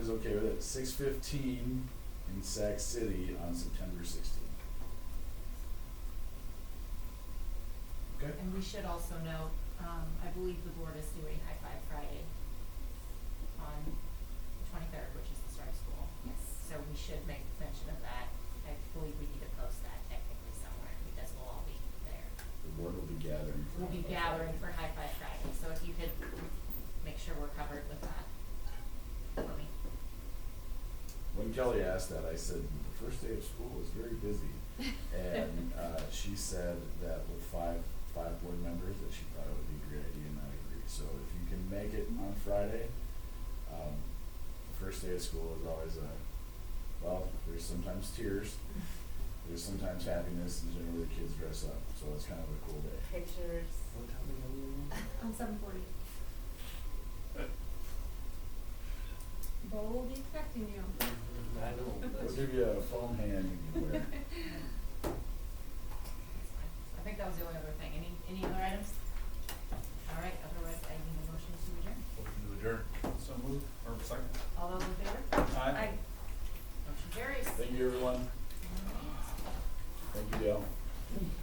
okay with it, six fifteen in Sac City on September sixteenth. Okay, And we should also note, um, I believe the board is doing High Five Friday on the twenty-third, which is the start of school. Yes. So we should make mention of that. I believe we need to post that technically somewhere because we'll all be there. the board will be gathering. for We'll be High Five gathering for Friday. High Five Friday, so if you could make sure we're covered with that for me. When Kelly asked that, I said, the first day of school was very busy. And, uh, she said that with five, five board members, that she thought it would be a great idea, and I agree. So if you can make it on Friday, um, the first day of school is always a, well, there's sometimes tears, there's sometimes happiness, and generally the kids dress up, so it's kind of a cool day. Pictures. What time do you leave? On seven forty. Bo will be expecting you. I know, We'll that's- give you a foam hand you can wear. That's fine. I think that was the only other thing. Any, any other items? All right, otherwise I need a motion to adjourn. Motion to adjourn. So moved, or second? All those in favor? Aye. Motion carries. Thank you, everyone.